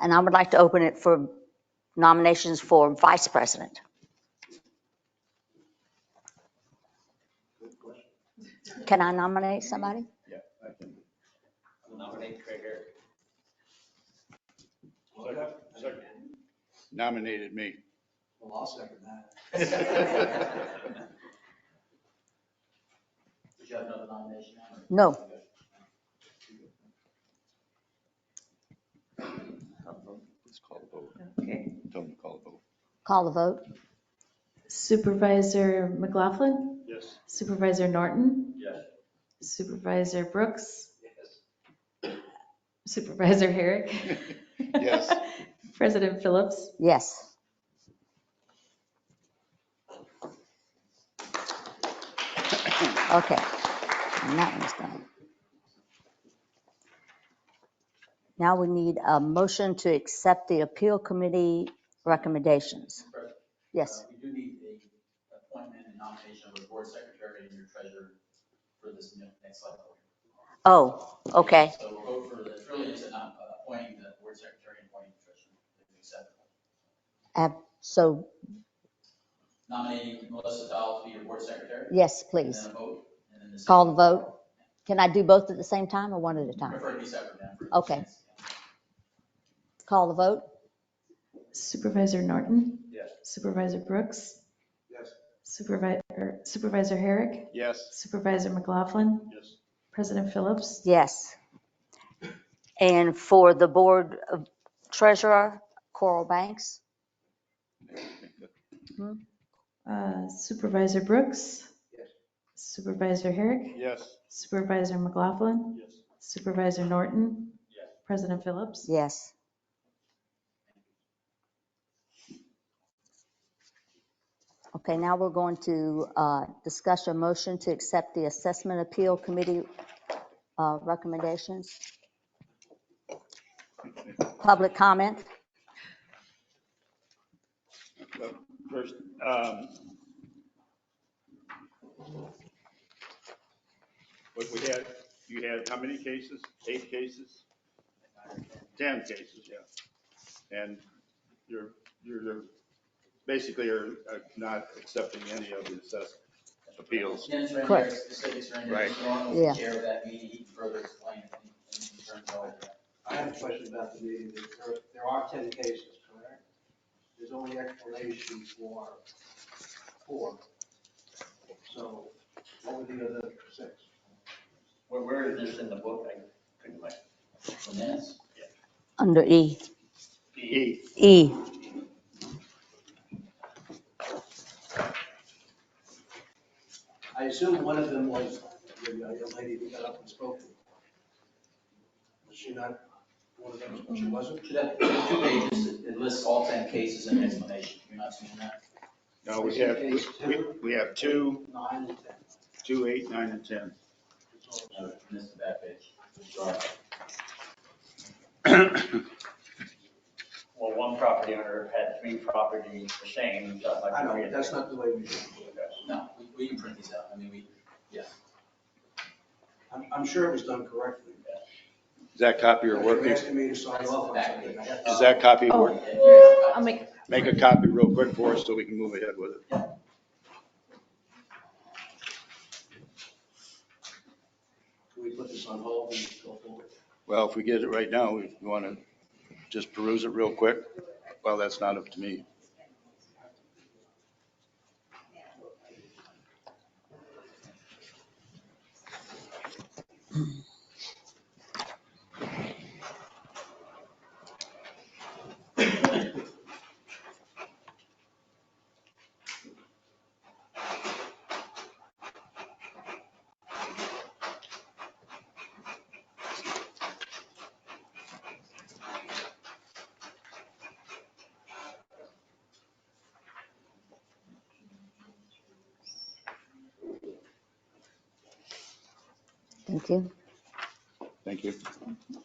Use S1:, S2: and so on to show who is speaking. S1: And I would like to open it for nominations for vice president. Can I nominate somebody?
S2: Nominate Craig Eric.
S3: nominated me.
S2: Well, I'll second that. Did you have another nomination?
S1: No.
S3: Let's call a vote.
S4: Okay.
S3: Tell them to call a vote.
S1: Call the vote.
S4: Supervisor McLaughlin,
S2: Yes.
S4: Supervisor Norton,
S2: Yes.
S4: Supervisor Brooks,
S2: Yes.
S4: Supervisor Herrick.
S3: Yes.
S4: President Phillips.
S1: Yes. Okay. And that one's done. Now we need a motion to accept the appeal committee recommendations. Yes,
S2: Uh, We do need a appointment and nomination of a board secretary and your treasurer for this ne- next cycle.
S1: oh, okay,
S2: So we'll go for, the really is not uh, appointing the board secretary and appointing the treasurer, if you accept.
S1: so,
S2: Nominating Melissa Dahl to be your board secretary.
S1: yes,
S2: And
S1: please,
S2: then a vote. and then the-
S1: call the vote. Can I do both at the same time or one at a time?
S2: Prefer to be separate now. for-
S1: Okay. Call the vote?
S4: Supervisor Norton,
S2: Yes.
S4: Supervisor Brooks,
S2: Yes.
S4: Supervisor, Supervisor Herrick,
S3: Yes.
S4: Supervisor McLaughlin,
S2: Yes.
S4: President Phillips.
S1: Yes. And for the board of treasurer, Coral Banks?
S4: uh, Supervisor Brooks.
S2: Yes.
S4: Supervisor Herrick,
S3: Yes.
S4: Supervisor McLaughlin,
S2: Yes.
S4: Supervisor Norton,
S2: Yes.
S4: President Phillips.
S1: Yes. Okay, now we're going to uh, discuss a motion to accept the Assessment Appeal Committee uh, recommendations. Public comment?
S3: First, um, what we had, you had how many cases? Eight cases? 10 cases, yeah. And you're, you're, you're- basically are uh, not accepting any of the assessment appeals.
S2: Dennis Ranieri,
S1: Correct.
S2: specifics Ranieri,
S3: Right.
S2: he's the one who
S1: Yeah.
S2: was chair of that meeting, he can further explain any any concerns over that.
S5: I have a question about the meeting. There- There are 10 cases, correct? There's only explanation for four. So what were the other six?
S2: Where, where is this in the book? I couldn't like. The minutes?
S1: Under E.
S3: E,
S1: E.
S5: I assume one of them was the uh, young lady who got up and spoke. Was she not one of them? She wasn't?
S2: Should have, there's two pages, it- it lists all ten cases and explanation, you're not seeing that?
S3: no, we have, we- we- we have two,
S5: Nine and 10.
S3: two, eight, nine, and 10.
S5: It's all-
S2: No, I missed the back page. Sorry.
S6: Well, one property owner had three properties the same, so I'd like
S5: I
S6: to
S5: know,
S6: read
S5: but
S6: it.
S5: that's not the way we do it.
S2: No, we, we can print these out, I mean, we,
S5: I'm, I'm sure it was done correctly.
S3: Is that copy or
S5: But You're
S3: working?
S5: asking me to sign off on something. I have to-
S3: Is that copy
S4: Oh.
S3: working?
S4: I'll make,
S3: Make a copy real quick for us so we can move ahead with it.
S5: Can we put this on hold and go forward?
S3: Well, if we get it right now, we want to just peruse it real quick. Well, that's not up to me.
S1: Thank you.
S3: Thank you.